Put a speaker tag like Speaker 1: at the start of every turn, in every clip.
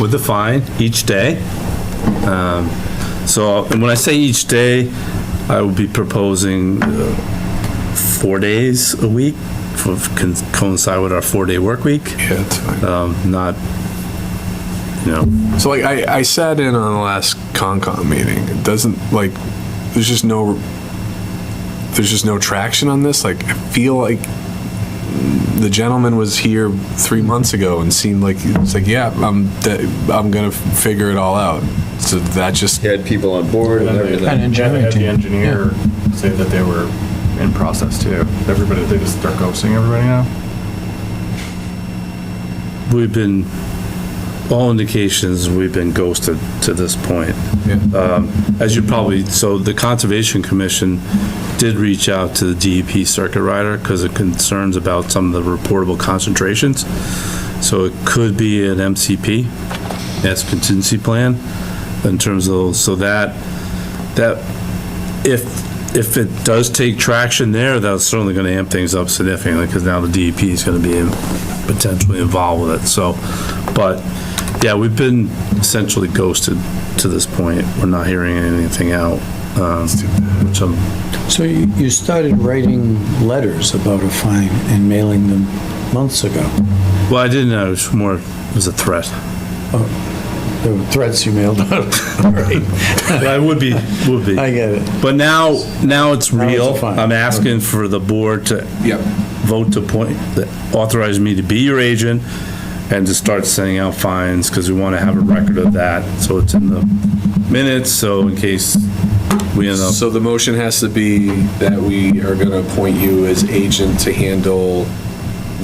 Speaker 1: with the fine each day. Um, So, and when I say each day, I will be proposing uh, four days a week for con- coincide with our four-day work week,
Speaker 2: Yeah, that's fine.
Speaker 1: Um, not, you know,
Speaker 2: So like, I, I sat in on the last Concom meeting. It doesn't, like, there's just no, there's just no traction on this. Like, I feel like the gentleman was here three months ago and seemed like, it's like, yeah, I'm, I'm gonna figure it all out. So that just,
Speaker 3: He had people on board and
Speaker 4: An
Speaker 3: everything.
Speaker 4: engineering
Speaker 5: Had the
Speaker 4: team.
Speaker 5: engineer say that they were in process too. Everybody, they just, they're ghosting everybody now?
Speaker 1: we've been, all indications, we've been ghosted to this point. Um, As you probably, so the Conservation Commission did reach out to the DEP circuit rider because of concerns about some of the reportable concentrations. So it could be an MCP, as contingency plan, in terms of, those. so that, that, if, if it does take traction there, that's certainly gonna amp things up significantly, because now the DEP is gonna be in- potentially involved with it, so. But, yeah, we've been essentially ghosted to this point. We're not hearing anything out, um, which I'm
Speaker 4: So you you started writing letters about a fine and mailing them months ago.
Speaker 1: well, I didn't know, it was more, it was a threat.
Speaker 4: There were threats you mailed out.
Speaker 1: But I would be, would be.
Speaker 4: I get it.
Speaker 1: But now, now it's
Speaker 4: it's
Speaker 1: real.
Speaker 4: fine.
Speaker 1: I'm asking for the board to
Speaker 2: yeah.
Speaker 1: vote to appoint, that authorize me to be your agent and to start sending out fines, because we want to have a record of that, so it's in the minutes, so in case we end up,
Speaker 2: So the motion has to be that we are going to appoint you as agent to handle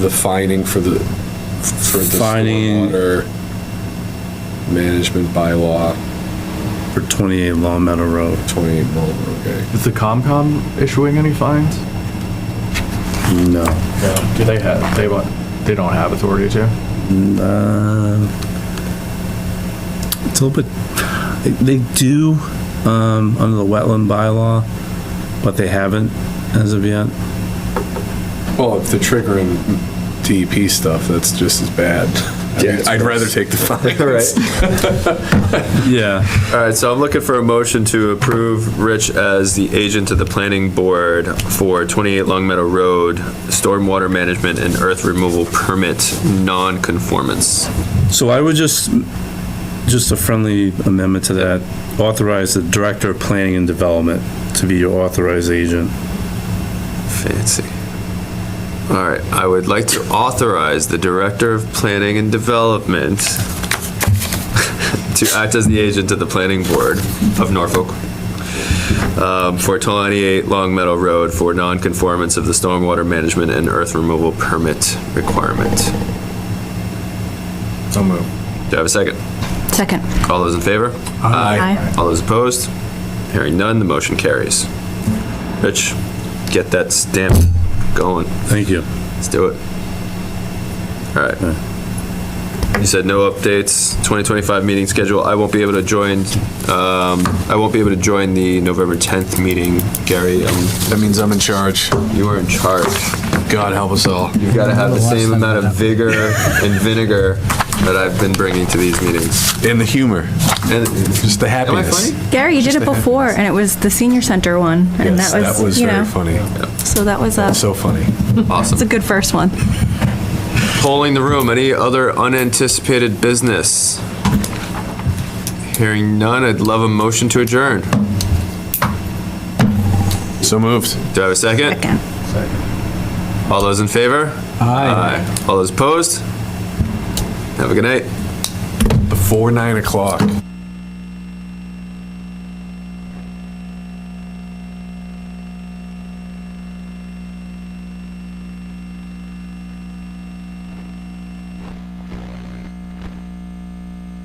Speaker 2: the fining for the, for the
Speaker 1: Fining.
Speaker 2: stormwater management bylaw,
Speaker 1: for 28 Long Meadow Road.
Speaker 2: 28 Mullen, oh, okay.
Speaker 5: Is the COMCOM issuing any fines?
Speaker 1: No.
Speaker 5: No. Do they have, they want, they don't have authority to?
Speaker 1: Uh, It's a little bit, they do, um, under the wetland bylaw, but they haven't as of yet.
Speaker 2: Well, if they're triggering DEP E stuff, that's just as bad. I mean,
Speaker 3: Yeah.
Speaker 2: I'd rather take the fine.
Speaker 3: All right,
Speaker 1: Yeah.
Speaker 3: all right, so I'm looking for a motion to approve Rich as the agent of the planning board for 28 Long Meadow Road, stormwater management and earth removal permit non-conformance.
Speaker 1: So I would just, just a friendly amendment to that, authorize the Director of Planning and Development to be your authorized agent.
Speaker 3: Fancy. All right, I would like to authorize the Director of Planning and Development to act as the agent of the Planning Board of Norfolk um, for 28 Long Meadow Road for non-conformance of the stormwater management and earth removal permit requirement.
Speaker 5: So move.
Speaker 3: Do I have a second?
Speaker 6: Second.
Speaker 3: All those in favor?
Speaker 6: Aye.
Speaker 3: All those opposed? Hearing none, the motion carries. Rich, get that stamp going.
Speaker 1: Thank you.
Speaker 3: Let's do it. All right. You said no updates, 2025 meeting schedule. I won't be able to join, um, I won't be able to join the November 10th meeting. Gary, um,
Speaker 2: That means I'm in charge.
Speaker 3: you are in charge.
Speaker 2: God help us all.
Speaker 3: You've got to have the same amount of vigor and vinegar that I've been bringing to these meetings.
Speaker 2: And the humor,
Speaker 3: And
Speaker 2: just the
Speaker 3: am I
Speaker 2: happiness.
Speaker 3: funny?
Speaker 6: Gary, you did it before, and it was the senior center one, and
Speaker 2: Yes,
Speaker 6: that
Speaker 2: that
Speaker 6: was,
Speaker 2: was
Speaker 6: you
Speaker 2: very
Speaker 6: know,
Speaker 2: funny.
Speaker 6: so that was a,
Speaker 2: So funny.
Speaker 6: it's a
Speaker 3: Awesome.
Speaker 6: good first one.
Speaker 3: Polling the room, any other unanticipated business? Hearing none, I'd love a motion to adjourn.
Speaker 2: So moved.
Speaker 3: Do I have a second?
Speaker 6: Second.
Speaker 3: All those in favor? Aye. All those opposed? Have a good night.
Speaker 2: Before 9 o'clock.